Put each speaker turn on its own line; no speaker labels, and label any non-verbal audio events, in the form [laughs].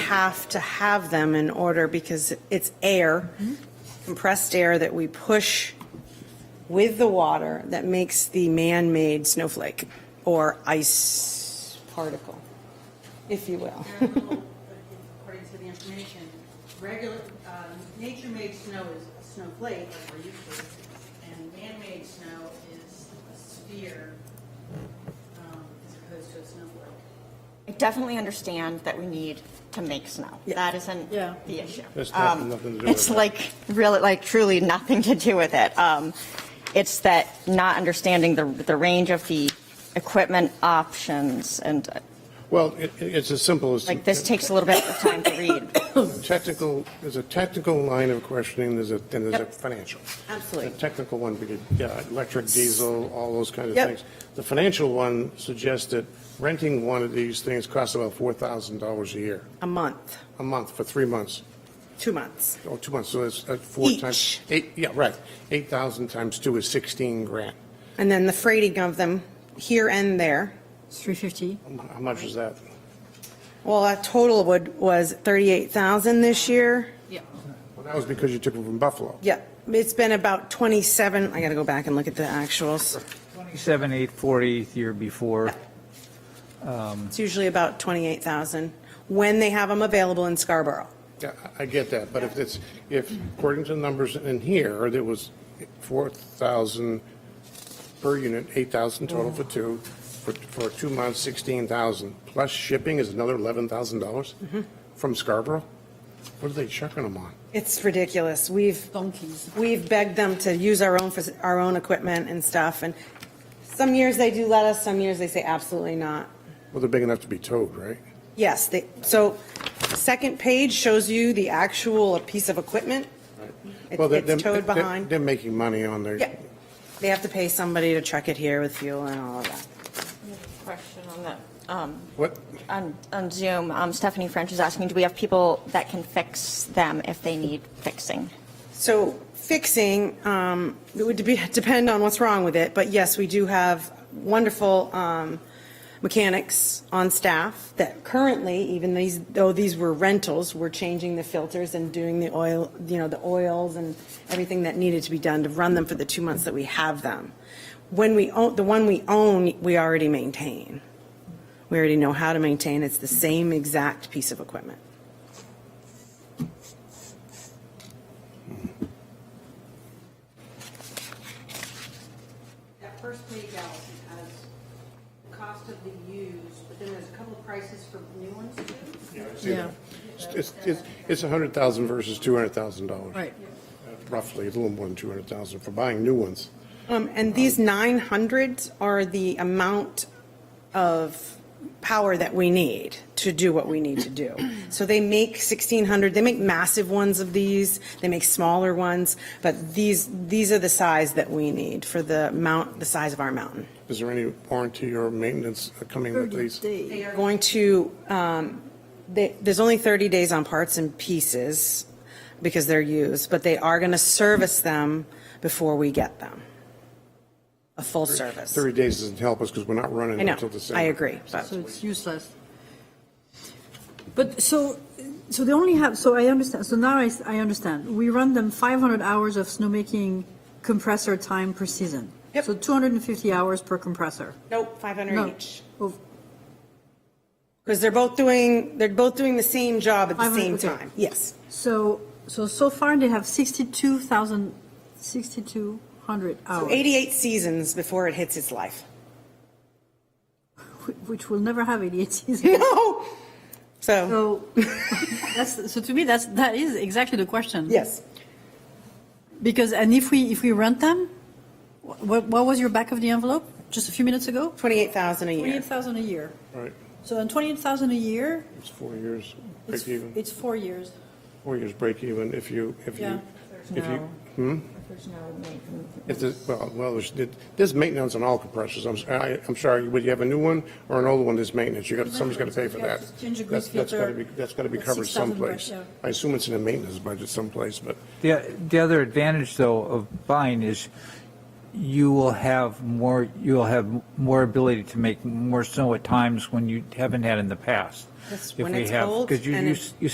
have to have them in order because it's air, compressed air that we push with the water that makes the man-made snowflake or ice particle, if you will.
According to the information, regular, um, nature-made snow is a snowflake, like we're used to, and man-made snow is a sphere, um, as opposed to a snowflake.
I definitely understand that we need to make snow. That isn't
Yeah.
the issue.
That's not-
Um,
nothing to do with
It's
it.
like, really, like truly nothing to do with it. Um, It's that not understanding the, the range of the equipment options and uh,
Well, it, it's as simple as.
like this takes a little bit of time to read.
Technical, there's a technical line of questioning, there's a, and there's a
Yep.
financial.
Absolutely.
The technical one, because, yeah, electric, diesel, all those kind of
Yep.
things. The financial one suggests that renting one of these things costs about $4,000 a year,
A month,
a month, for three months,
two months.
or two months, so it's uh, four times.
Each.
Eight, yeah, right. 8,000 times two is 16 grand.
And then the freighting of them here and there.
Three fifty.
How much is that?
Well, that total would, was 38,000 this year.
Well, that was because you took them from Buffalo.
Yeah, it's been about 27, I gotta go back and look at the actuals.
27, 840 the year before.
It's usually about 28,000 when they have them available in Scarborough.
Yeah, I I get that, but if it's, if according to the numbers in here, there was 4,000 per unit, 8,000 total for two, for, for two months, 16,000, plus shipping is another $11,000 from Scarborough? What are they chucking them on?
It's ridiculous. We've,
Donkeys.
we've begged them to use our own, fac- our own equipment and stuff. And some years they do let us, some years they say absolutely not.
Well, they're big enough to be towed, right?
Yes, they, so second page shows you the actual piece of equipment. It-
Well, they're-
It's
they're-
towed
they're-
behind.
They're making money on their.
Yeah, they have to pay somebody to truck it here with fuel and all of that.
Question on that. Um,
What,
On on Zoom, um, Stephanie French is asking, do we have people that can fix them if they need fixing?
So fixing, um, it would be- depend on what's wrong with it, but yes, we do have wonderful um, mechanics on staff that currently, even these, though these were rentals, were changing the filters and doing the oil, you know, the oils and everything that needed to be done to run them for the two months that we have them. When we own, the one we own, we already maintain. We already know how to maintain. It's the same exact piece of equipment.
That first page, Allison, has the cost of the used, but then there's a couple of prices for new ones too.
Yeah,
it's, it's, it's 100,000 versus $200,000.
right.
Roughly, a little more than 200,000 for buying new ones.
Um, and these nine hundreds are the amount of power that we need to do what we need to do. So they make sixteen hundred, they make massive ones of these, they make smaller ones, but these, these are the size that we need for the mount, the size of our mountain.
Is there any warranty or maintenance coming with these?
They
They're going to, um, they, there's only 30 days on parts and pieces because they're used, but they are going to service them before we get them. A full service.
30 days doesn't help us because we're not running
I know,
until December.
I agree, but
So it's useless. But so, so they only have, so I understand, so now I, s- I understand. We run them 500 hours of snowmaking compressor time per season.
Yep.
So 250 hours per compressor.
nope, 500
No.
each.
Oh,
Because they're both doing, they're both doing the same job at the
500,
same
okay.
time, yes.
So, so, so far they have 62,000, 6,200
So
hours,
88 seasons before it hits its life. [laughs]
wh- which will never have 88 [laughs] seasons.
No! So,
So, that's, so to me, that's, that is exactly the question.
yes.
Because, and if we, if we rent them, what, what was your back of the envelope just a few minutes ago?
28,000 a year.
28,000 a year.
Right,
So on 28,000 a year,
it's four years, break
it's,
even,
it's four years.
four years break even if you, if
Yeah.
you, if you, hmm?
There's no
If there's, well, well, there's, there's maintenance on all compressors. I'm, s- I, am sorry, would you have a new one or an old one that's maintenance? You got, somebody's got to pay for
Yeah,
that.
just change a
That's-
grease
That's got to be,
filter.
that's got to be
That's
covered
6,000 bucks,
someplace.
yeah.
I assume it's in a maintenance budget someplace, but
The, the other advantage, though, of buying is you will have more, you'll have more ability to make more snow at times when you haven't had in the past.
That's
If
when
we
it's
have-
cold
Because you,
and
you
it-
s- you